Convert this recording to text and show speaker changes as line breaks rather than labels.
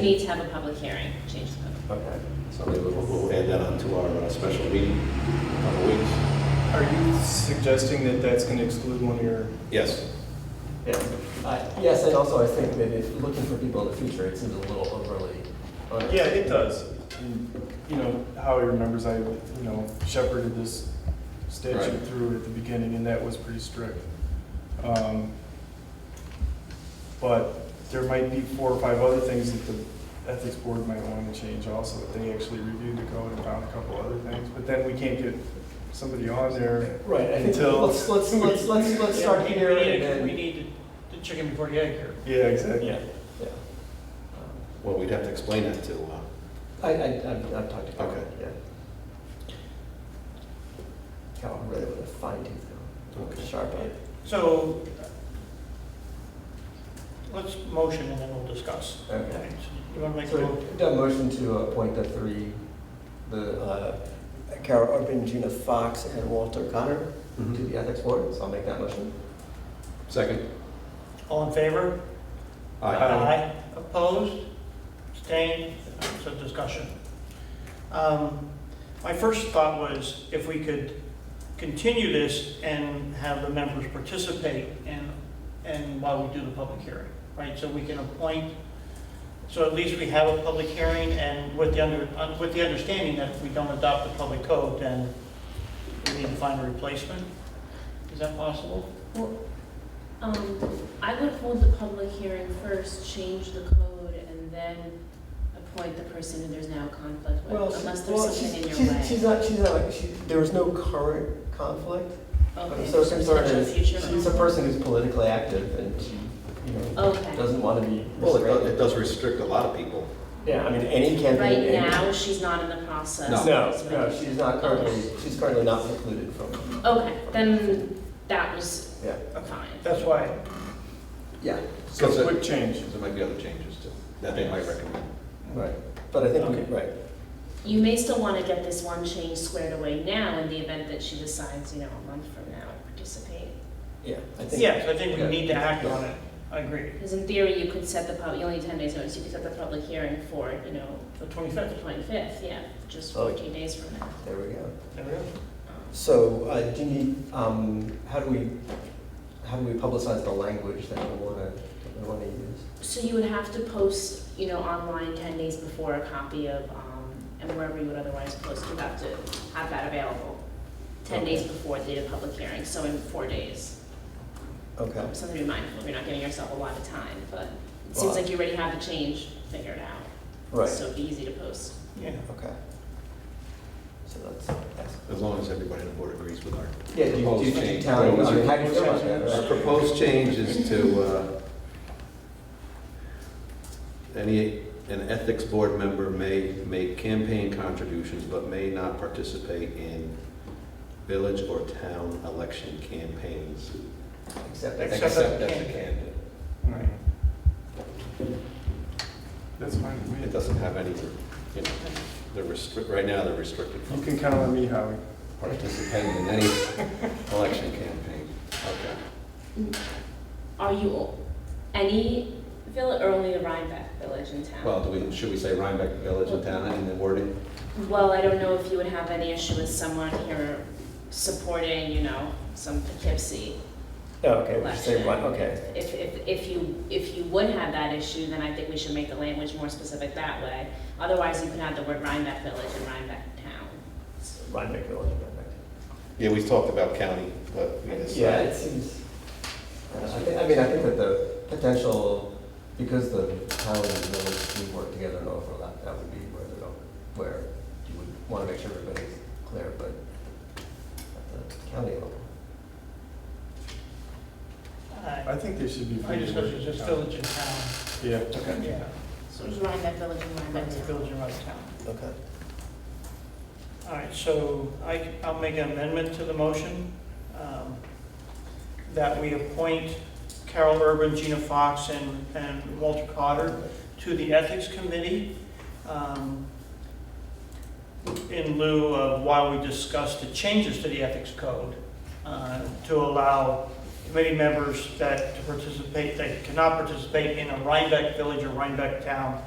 need to have a public hearing, change the code.
Okay, so maybe we'll, we'll add that on to our uh, special meeting in a couple weeks.
Are you suggesting that that's going to exclude one of your?
Yes,
Uh, Yes, and also I think that if looking for people in the future, it seems a little overly. uh, onerous.
Yeah, it does. And, You know, how he remembers I, you know, shepherded this statute
Right.
through at the beginning, and that was pretty strict. Um, But there might be four or five other things that the ethics board might want to change also. If They actually reviewed the code and found a couple other things, but then we can't get somebody on there.
Right, I think,
Until-
let's, let's, let's, let's, let's
Yeah,
start
we- we
here
need-
and
We
then.
need the chicken before the egg here.
Yeah, exactly.
Yeah.
yeah. Um,
well, we'd have to explain that to, uh,
I, I, I've, I've talked to Carol,
Okay.
yeah. Carol, I'm really with a fine tooth comb,
Okay.
sharp eye.
So let's motion and then we'll discuss.
Okay.
You want to make a
So,
vote?
done motion to appoint the three, the, uh, Carol Urban, Gina Fox, and Walter Connor to
Mm-hmm.
the ethics board, so I'll make that motion.
second.
All in favor?
Aye.
Opposed? Abstained? So discussion. Um, My first thought was if we could continue this and have the members participate and, and while we do the public hearing, right? So we can appoint, so at least we have a public hearing and with the under, un- with the understanding that if we don't adopt the public code, then we need to find a replacement. Is that possible?
Um, I would hold the public hearing first, change the code, and then appoint the person who there's now a conflict
Well,
with, unless there's
well,
something
she's-
in your
she's-
way.
She's not, she's not, like- she, there was no current conflict. but
Okay,
So
so
concerned
potential
is,
future
she's a
one.
person who's politically active and she, you know,
Okay,
doesn't want to be
Well, it does- it
restricted.
does restrict a lot of people.
Yeah, I mean, any candidate.
right
any-
now, she's not in the process.
No.
No,
That's
no,
right.
she's not currently, she's currently not precluded from,
Okay, then that was
yeah,
fine.
That's why
yeah,
So
Because it-
quick change.
There might be other changes too, that they might recommend.
right. But I think,
Okay.
we- right,
You may still want to get this one change squared away now in the event that she decides, you know, a month from now to participate.
yeah, I think.
Yes, I think we
yeah.
need to act on it. I agree.
Because in theory, you could set the public, you only need ten days notice, you could set the public hearing for, you know,
The
the
25th.
twenty-fifth, yeah, just
Oh.
fourteen days from now.
There we go.
There we go.
So, uh, do you need, um, how do we, how do we publicize the language that we want to, that we want to use?
So you would have to post, you know, online ten days before a copy of, um, and wherever you would otherwise post, you'd have to have that available ten days before the date of public hearing, so in four days.
Okay.
Something to be mindful, you're not giving yourself a lot of time, but it seems
Well,
like you already have the change figured out.
Right,
So it'd be easy to post.
Yeah.
okay. So that's, that's,
As long as everybody on the board agrees with our
yeah, do you, do you-
proposed
do you
change.
tell,
Well,
I mean, how
our-
do you feel about that?
Our
right?
proposed change is to, uh, any, an ethics board member may make campaign contributions but may not participate in village or town election campaigns.
Except,
Ex-
I
Except
Except
that
as a
candidate.
candidate.
Right. That's fine with me.
It doesn't have any, you know, they're restrict, right now they're restricted
You
from
can count on me, Howie.
participating in any election campaign. Okay.
Are you all- any village or only the Rhinebeck village in town?
Well, do we, should we say Rhinebeck Village and Town in the wording?
Well, I don't know if you would have any issue with someone here supporting, you know, some Poughkeepsie
oh, okay, we should
election.
say one, okay.
If, if, if you, if you would have that issue, then I think we should make the language more specific that way. Otherwise, you could have the word Rhinebeck village and Rhinebeck town.
Rhinebeck Village, Rhinebeck.
Yeah, we talked about county, but we
Yeah,
decided.
it seems, I don't know, I think, I mean, I think that the potential, because the town and the village do work together and overlap, that would be where they don't, where you would want to make sure everybody's clear, but at the county level.
I think they should be.
Uh, I just got this village in town.
Yeah.
Yeah.
So it's Rhinebeck village and Rhinebeck
Rhinebeck
town.
Village in Rhinebeck town.
Okay.
All right, so I, I'll make an amendment to the motion um, that we appoint Carol Urban, Gina Fox, and, and Walter Cotter to the Ethics Committee um, in lieu of while we discuss the changes to the Ethics Code uh, to allow committee members that to participate, that cannot participate in a Rhinebeck Village or Rhinebeck Town